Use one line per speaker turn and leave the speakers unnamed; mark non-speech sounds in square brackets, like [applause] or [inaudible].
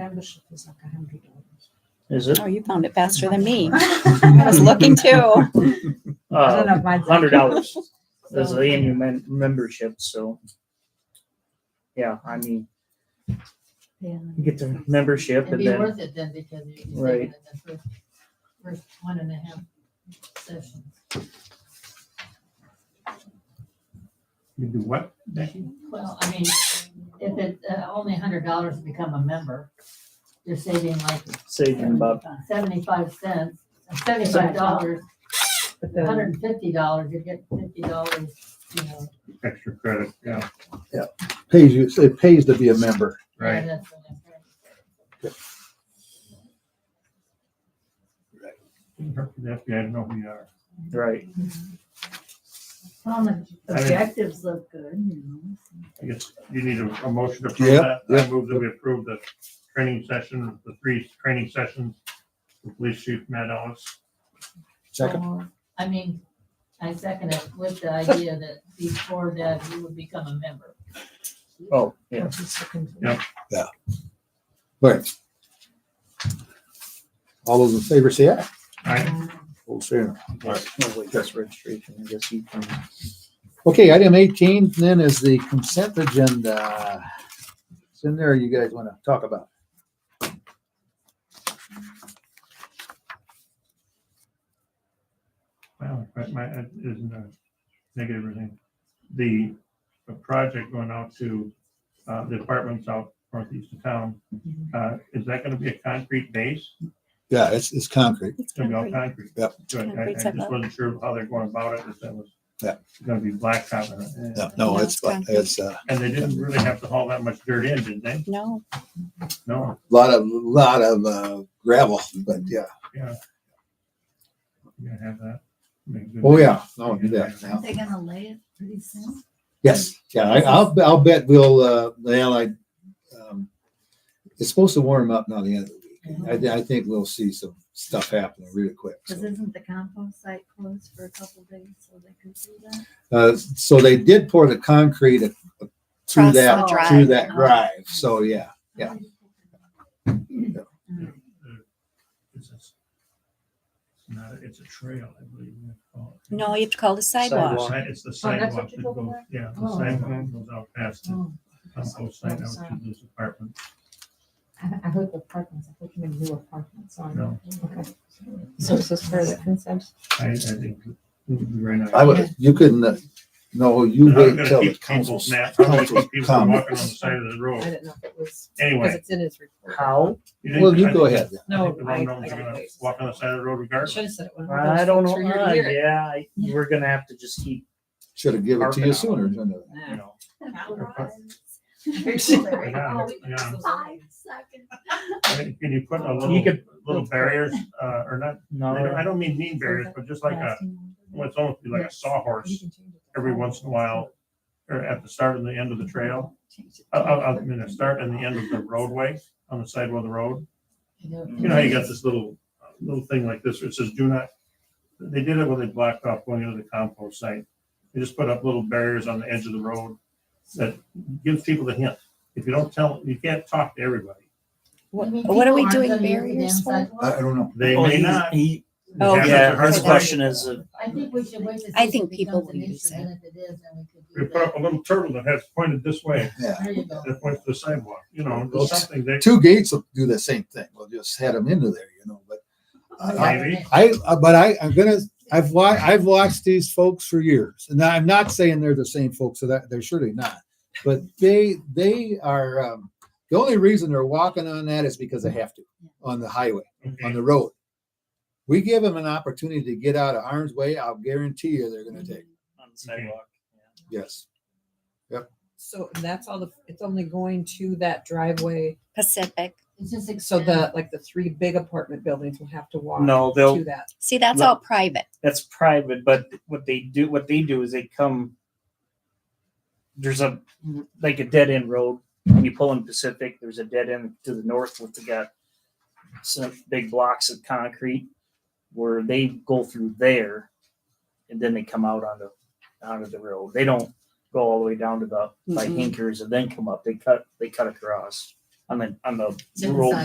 Membership is like a hundred dollars.
Is it?
Oh, you found it faster than me.
[laughs]
[laughs] I was looking too.
I don't know
Uh,
if mine's-
hundred dollars is
So-
the annual men- membership, so. Yeah, I mean,
Yeah.
you get the membership
It'd
and
be
then,
worth it then because you're saving
Right.
it the first, first one and a half sessions.
You do what?
Well, I mean, if it, uh, only a hundred dollars to become a member, you're saving like uh,
saving about,
seventy-five cents, uh, seventy-five dollars,
But the,
hundred and fifty dollars, you get fifty dollars, you know.
Extra credit, yeah.
Pays you, it pays to be a member.
and that's what I'm trying to say.
That's, yeah, I know who you are.
right,
Well, the
I mean-
objectives look good, you know.
I guess you need a, a motion to approve that. I
Yep, yep.
move that we approve the training session, the three training sessions. The police chief, Matt Ellis.
Second.
Oh,
I mean, I second it with the idea that before that, you would become a member.
oh, yeah.
just looking for-
Yeah.
Right. All those in favor say aye.
Aye.
Hold fair.
Oh, wait, that's registration, I guess you can.
Okay, item eighteen then is the consent agenda. It's in there you guys want to talk about.
Well, but my, it isn't a negative or anything. The, the project going out to, uh, the apartments out northeast of town, uh, is that gonna be a concrete base?
Yeah, it's, it's concrete.
It's gonna be all concrete?
Yep.
Good. I, I
Concrete
just
sidewalk.
wasn't sure how they're going about it, if that was
Yeah.
gonna be blacktop or,
No,
No,
no,
it's
it's,
concrete.
it's uh, a
and they didn't really have to haul that much dirt in, did they?
No,
No,
lot of, lot of uh, gravel, but yeah.
yeah. You gonna have that? Make good-
Oh, yeah. No, do that now.
They're gonna lay it pretty soon.
Yes, yeah, I, I'll, I'll bet we'll, uh, the Allied, um, it's supposed to warm up now the end of the week. I, thi- I think we'll see some stuff happening really quick.
Mm-hmm. Cause
so.
isn't the compost site closed for a couple days, so they could do that?
Uh, so they did pour the concrete at- through
Across the Oh.
that,
drive.
through that drive, so yeah. Yeah.
Mm-hmm.
It's a- it's not, a- it's a trail, I believe. you call it.
no, you have to call the sidewalk.
Well, It's the
Oh, that's
sidewalk
what
that
you're talking
goes,
about?
yeah, the
Oh.
sidewalk goes out past the
Oh,
compost site out to this apartment.
I, I heard the apartments, I thought you meant new apartments, sorry.
No,
Okay. So this is for the consent?
I, I think. it would be very nice.
I would, you couldn't, uh, no, you
I'm
wait
gonna
till the
keep people
council's,
mad. I'm gonna
council's
keep people walking on
comment.
the side of the
I
road.
didn't know if it was, because
Anyway.
it's in his report.
How?
think-
Well, you
I
go
think-
ahead.
I think
No,
the
I, I
Rondons
gotta
are gonna
wait.
Walk on the side of the road
I
regardless.
should have said it when I
I
was
don't
going
know,
through your
Uh,
year.
yeah, I- we're gonna have to just keep,
Should have given it to you sooner, shouldn't it?
you know,
[laughs]
Hang on, hang on.
Um,
Five
Can you put a
You
little,
could-
little barriers, uh, or not, I don't- I
no,
don't mean mean barriers, but just like a, well, it's almost like a sawhorse every once in a while. Or at the start and the end of the trail, I, I, I mean, the start and the end of the roadway on the side of the road. You know, how you got this little, uh, little thing like this, where it says do not, they did it when they blocked off going into the compost site. They just put up little barriers on the edge of the road that gives people the hint. If you don't tell, you can't talk to everybody.
What
You mean
what are we
people aren't
doing
gonna
barriers
use the damn
for?
sidewalk?
I, I don't know.
They
Oh,
may
he's-
not.
he-
Oh,
That's
yeah,
a hard
the
his
question is, uh,
I think we should wait to see.
I
if
think
it
people
becomes
will
an
use
issue,
it.
and if it is, then we could do
They put
that.
up a little turtle that has pointed this way,
Yeah.
There you go.
that points to the sidewalk, you know,
Oops.
something they.
Two gates will do the same thing. We'll just head them into there, you know, but I- I-
Maybe.
I, uh, but I, I'm gonna, I've wa- I've watched these folks for years, and I'm not saying they're the same folks, so that they're surely not. But they, they are. Um, the only reason they're walking on that is because they have to on the highway, on
Okay.
the road. We give them an opportunity to get out of harm's way. I'll guarantee you they're gonna take. it.
on the sidewalk.
Yes,
So that's all the, it's only going to that driveway,
Pacific.
It's just
so
expensive.
the, like the three big apartment buildings will have to walk
No,
to
they'll,
that.
See, that's
Well-
all private.
that's private, but what they do, what they do is they come. There's a, like a dead end road, when you pull in Pacific, there's a dead end to the north with the got. Some big blocks of concrete where they go through there and then they come out onto, onto the road. They don't go all the way down to the, like
Mhm.
Hinkers and then come up. They cut, they cut across. on the, on the
Different
road
side.